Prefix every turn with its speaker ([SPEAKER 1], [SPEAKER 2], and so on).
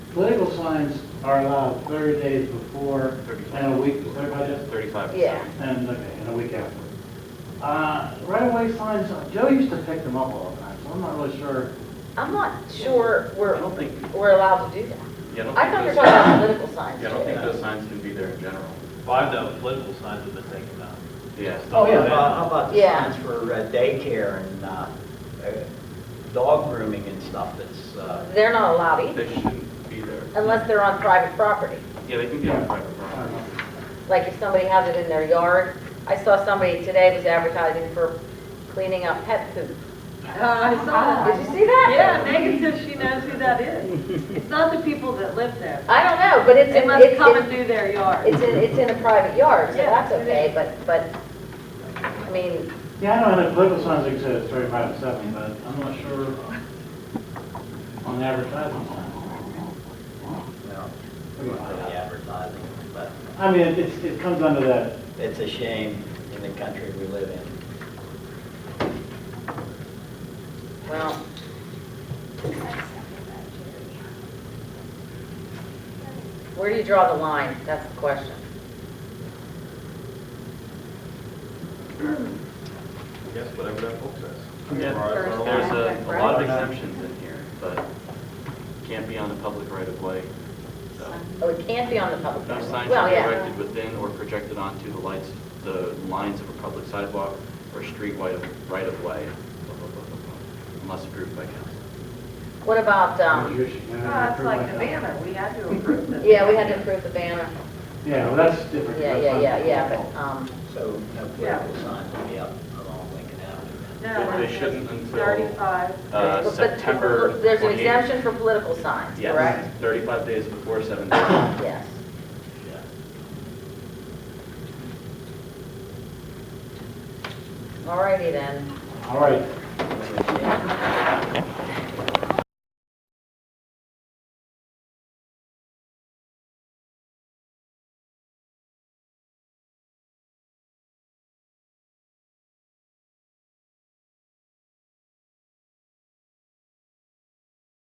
[SPEAKER 1] Political signs are allowed 30 days before and a week, is that about it?
[SPEAKER 2] 35.
[SPEAKER 3] Yeah.
[SPEAKER 1] And, okay, and a week after. Uh, Right-of-way signs, Joe used to pick them up all the time, so I'm not really sure.
[SPEAKER 3] I'm not sure
[SPEAKER 2] I
[SPEAKER 3] we're,
[SPEAKER 2] don't think,
[SPEAKER 3] we're allowed to do that.
[SPEAKER 2] yeah, I don't think.
[SPEAKER 3] I thought you were
[SPEAKER 2] those-
[SPEAKER 3] talking about political signs.
[SPEAKER 2] Yeah, I don't think
[SPEAKER 3] too.
[SPEAKER 2] those signs can be there in general.
[SPEAKER 4] Five of the political signs have been taken down.
[SPEAKER 2] Yeah.
[SPEAKER 1] Oh, yeah.
[SPEAKER 5] How about- How about the
[SPEAKER 3] Yeah.
[SPEAKER 5] signs for uh, daycare and uh, uh, dog grooming and stuff that's, uh,
[SPEAKER 3] They're not allowed either,
[SPEAKER 2] They shouldn't be there.
[SPEAKER 3] unless they're on private property.
[SPEAKER 2] Yeah, they can be on private
[SPEAKER 1] I
[SPEAKER 2] property.
[SPEAKER 1] don't know.
[SPEAKER 3] Like if somebody has it in their yard. I saw somebody today was advertising for cleaning up pet poop.
[SPEAKER 6] Oh, I saw
[SPEAKER 3] Did you
[SPEAKER 6] that.
[SPEAKER 3] see that?
[SPEAKER 6] Yeah, Megan says she knows who that is. It's not the people that live there.
[SPEAKER 3] I don't know, but it's,
[SPEAKER 6] They
[SPEAKER 3] in-
[SPEAKER 6] must
[SPEAKER 3] it's,
[SPEAKER 6] come and
[SPEAKER 3] it's-
[SPEAKER 6] do their yard.
[SPEAKER 3] it's in, it's in a private yard, so
[SPEAKER 6] Yeah,
[SPEAKER 3] that's
[SPEAKER 6] it
[SPEAKER 3] okay,
[SPEAKER 6] is.
[SPEAKER 3] but, but, I mean,
[SPEAKER 1] Yeah, I know that political signs exist, 35 to 70, but I'm not sure on the advertising sign.
[SPEAKER 5] you know, for the advertising, but
[SPEAKER 1] I mean, it's, it comes under that,
[SPEAKER 5] it's a shame in the country we live in.
[SPEAKER 3] well, where do you draw the line? That's the question.
[SPEAKER 2] I guess whatever that book says.
[SPEAKER 4] Yeah.
[SPEAKER 2] Or- or There's a, a lot of exemptions in here, but can't be on the public right of way. So
[SPEAKER 3] Oh, it can't be on the public.
[SPEAKER 2] No
[SPEAKER 3] property.
[SPEAKER 2] sign shall
[SPEAKER 3] Well,
[SPEAKER 2] be
[SPEAKER 3] yeah,
[SPEAKER 2] erected within or projected onto the lights, the lines of a public sidewalk or street right of, right of way, blah, blah, blah, blah, blah, unless approved by council.
[SPEAKER 3] what about, um,
[SPEAKER 1] you should, you know,
[SPEAKER 6] Oh, it's like the
[SPEAKER 1] approve like that.
[SPEAKER 6] banner, we had to approve this.
[SPEAKER 3] yeah, we had to approve the banner.
[SPEAKER 1] Yeah, well, that's different.
[SPEAKER 3] Yeah,
[SPEAKER 1] That's
[SPEAKER 3] yeah,
[SPEAKER 1] not-
[SPEAKER 3] yeah, yeah, but, um,
[SPEAKER 5] So no
[SPEAKER 6] Yeah.
[SPEAKER 5] political signs will be up along Lincoln Avenue.
[SPEAKER 6] No,
[SPEAKER 2] They- they
[SPEAKER 6] it's
[SPEAKER 2] shouldn't until-
[SPEAKER 6] 35.
[SPEAKER 2] Uh,
[SPEAKER 3] but- but
[SPEAKER 2] September
[SPEAKER 3] There's an
[SPEAKER 2] 28th.
[SPEAKER 3] exemption for political signs, correct?
[SPEAKER 2] Yes, 35 days before 7 days.
[SPEAKER 3] Yes.
[SPEAKER 5] Yeah.
[SPEAKER 3] Alrighty then.
[SPEAKER 5] uh,
[SPEAKER 1] All right.